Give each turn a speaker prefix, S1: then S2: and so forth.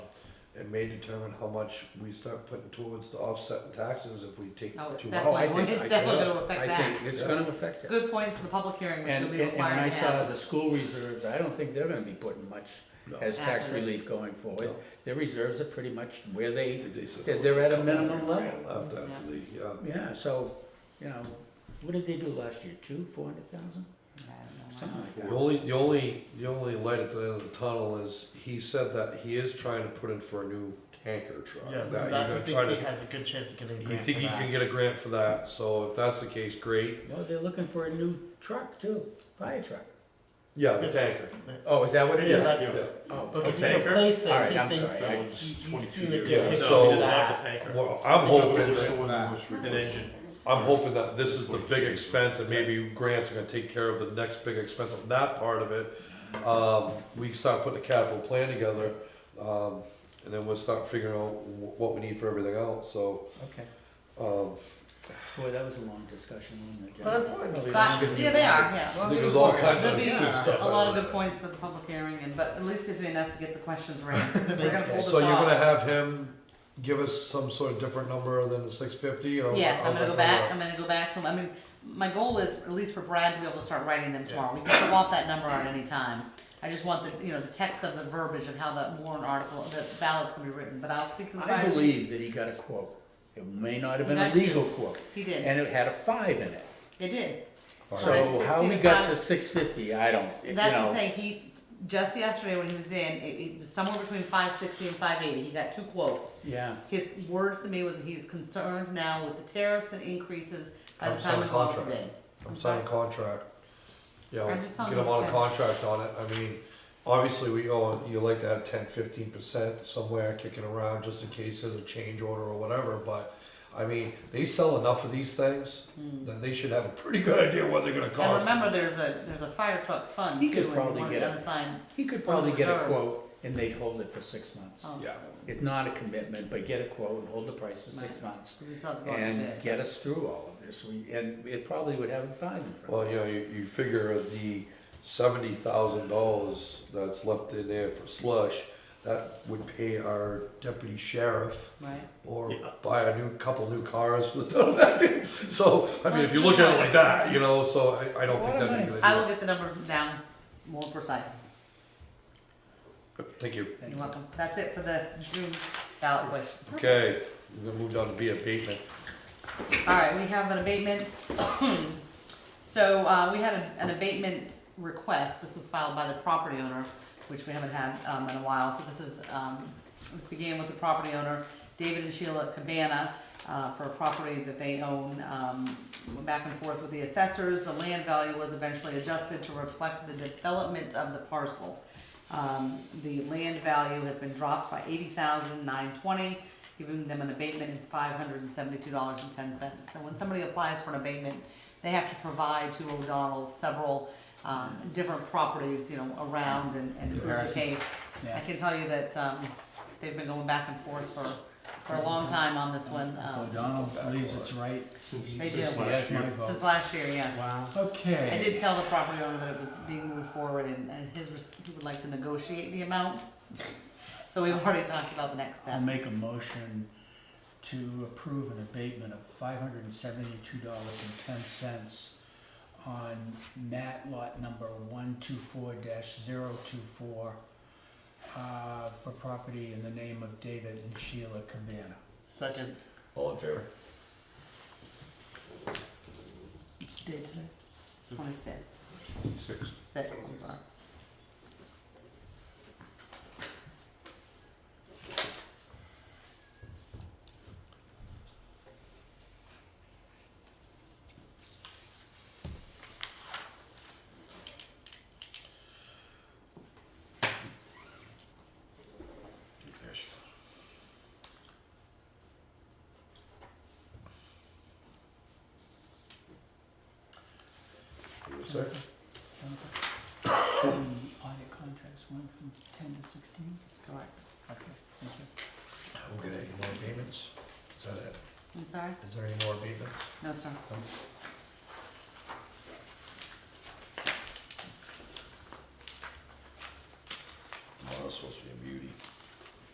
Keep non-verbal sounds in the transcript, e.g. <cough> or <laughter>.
S1: may determine how much we start putting towards the offset in taxes if we take too
S2: Oh, it's
S1: out.
S3: I
S2: definitely,
S3: think-
S2: it's
S3: I
S2: definitely
S3: think-
S2: gonna affect
S3: I
S2: that.
S3: think it's
S1: Yeah.
S3: gonna affect it.
S2: Good points for the public hearing, which
S3: And,
S2: you'll be
S3: and and when I
S2: required to
S3: saw
S2: have.
S3: the school reserves, I don't think they're gonna be putting much
S1: No.
S3: as tax
S2: After this.
S3: relief going forward.
S1: No.
S3: Their reserves are pretty much where
S1: I
S3: they,
S1: think they said-
S3: they're they're at a minimum level.
S1: After, after the, yeah.
S3: Yeah, so, you know, what did they do last year, two, four hundred thousand? Something like
S1: The
S3: that.
S1: only, the only, the only light at the end of the tunnel is, he said that he is trying to put in for a new tanker truck.
S4: Yeah,
S1: That
S4: that
S1: you're
S4: he
S1: gonna
S4: thinks
S1: try
S4: he
S1: to-
S4: has a good chance of getting a
S1: You
S4: grant
S1: think
S4: for
S1: you
S4: that.
S1: can get a grant for that, so if that's the case, great.
S3: No, they're looking for a new truck too, fire truck.
S1: Yeah, the tanker.
S3: Oh, is that what it
S4: Yeah,
S3: is?
S4: that's,
S1: Yeah.
S3: Oh,
S4: because he's
S3: okay.
S4: replacing,
S3: All right,
S4: he
S3: I'm
S4: thinks
S3: sorry,
S4: so.
S3: I-
S4: You-
S5: It's
S4: You've
S5: 22
S4: seen a
S5: years
S4: good
S5: old.
S4: picture
S1: So-
S4: of that.
S5: tanker.
S1: Well, I'm
S4: It's
S1: hoping
S4: really
S1: that,
S4: cool.
S5: An engine.
S1: I'm hoping that this is the big expense and maybe grants are gonna take care of the next big expense on that part of it. Um, we can start putting a capital plan together, um, and then we'll start figuring out wh- what we need for everything else, so,
S3: Okay.
S1: um,
S3: Boy, that was a long discussion, wasn't it?
S4: Well,
S3: Jen?
S4: that's what it was.
S2: Scott, yeah, they are, yeah.
S1: I think there's all kinds
S2: There'll
S1: of
S2: be
S1: good stuff.
S2: a lot of good points for the public hearing, and, but at least gives me enough to get the
S1: <laughs>
S2: questions right. We're gonna pull this
S1: So you're gonna
S2: off.
S1: have him give us some sort of different number than the six fifty or?
S2: Yes, I'm
S1: how's
S2: gonna
S1: that
S2: go back, I'm gonna go back to him, I mean, my goal is, at least for Brad to be able to start writing them tomorrow, we can swap that number out any time. I just want the, you know, the text of the verbiage of how the warrant article, the ballot's gonna be written, but I'll speak to the.
S3: I
S2: guy.
S3: believe that he got a quote. It may not have been a
S2: Not two.
S3: legal quote.
S2: He did.
S3: And it had a five in it.
S2: It did,
S1: Fine.
S2: Right,
S3: So how
S2: 60
S3: we
S2: to
S3: got
S2: five.
S3: to six fifty, I don't, you
S2: that's what I'm
S3: know.
S2: saying, he, just yesterday when he was in, it, it was somewhere between five sixty and five eighty, he got two quotes.
S3: Yeah,
S2: His words to me was that he's concerned now with the tariffs and increases by the
S1: I'm
S2: time we
S1: signing
S2: go out to
S1: contract.
S2: bid.
S1: I'm signing a contract. You know,
S2: I'm just telling
S1: get him
S2: you
S1: on a
S2: what
S1: contract on it, I mean, obviously we all, you like to have ten, fifteen percent somewhere kicking around just in case there's a change order or whatever, but. I mean, they sell enough of these things that they should have a pretty good idea what they're gonna
S2: Hmm. And
S1: cost.
S2: remember, there's a, there's a fire truck fund
S3: He
S2: too,
S3: could
S2: and
S3: probably
S2: you wanna
S3: get
S2: get
S3: it.
S2: an assigned.
S3: he could probably
S2: the
S3: get a
S2: reserves.
S3: quote and they'd hold it for six months.
S2: oh,
S1: Yeah.
S3: It's not a commitment, but get a quote and hold the price for six
S2: Right.
S3: months.
S2: We just have to go out to
S3: And
S2: bid.
S3: get us through all of this. We, and it probably would have a five in front
S1: Well,
S3: of
S1: you know, you, you figure the seventy thousand dollars that's left in there for slush, that would pay our deputy sheriff
S2: Right.
S1: or
S5: Yeah.
S1: buy a new, couple new cars for the <laughs> town of Acton. So, I mean, if you look at it like that, you know, so I, I don't think that'd be a good
S2: I will
S1: idea.
S2: get the number down more precise.
S1: Thank you.
S3: Thank
S2: You're
S3: you.
S2: welcome. That's it for the June ballot question.
S1: Okay, we're gonna move down to be abatement.
S2: All right, we have an abatement. <clears throat> So, uh, we had a- an abatement request, this was filed by the property owner, which we haven't had, um, in a while, so this is, um, this began with the property owner, David and Sheila Cabana, uh, for a property that they own, um, went back and forth with the assessors, the land value was eventually adjusted to reflect the development of the parcel. Um, the land value has been dropped by eighty thousand nine twenty, giving them an abatement of five hundred and seventy-two dollars and ten cents. Now, when somebody applies for an abatement, they have to provide to O'Donnell several, um, different properties, you know, around and, and prove the
S3: Comparisons.
S2: case.
S3: Yeah.
S2: I can tell you that, um, they've been going back and forth for, for a long time on this one,
S3: Oh,
S2: um,
S6: O'Donnell believes it's right.
S2: They do.
S6: He has my
S2: since
S6: vote.
S2: last year, yes.
S3: Wow.
S2: I did
S6: Okay,
S2: tell the property owner that it was being moved forward and, and his, res- he would like to negotiate the amount. So we've already talked about the next
S6: I'll
S2: step.
S6: make a motion to approve an abatement of five hundred and seventy-two dollars and ten cents on mat lot number one two four dash zero two four, uh, for property in the name of David and Sheila Cabana.
S4: Second,
S1: All in favor?
S2: Did, twenty-fifth,
S1: Six.
S2: six, sorry.
S1: Give it a
S6: <coughs>
S1: second.
S6: Um, Audit contracts went from ten to sixteen?
S2: correct.
S6: Okay, thank you.
S1: We'll get any more abatements? Is that it?
S2: I'm sorry?
S1: Is there any more abatements?
S2: No, sir.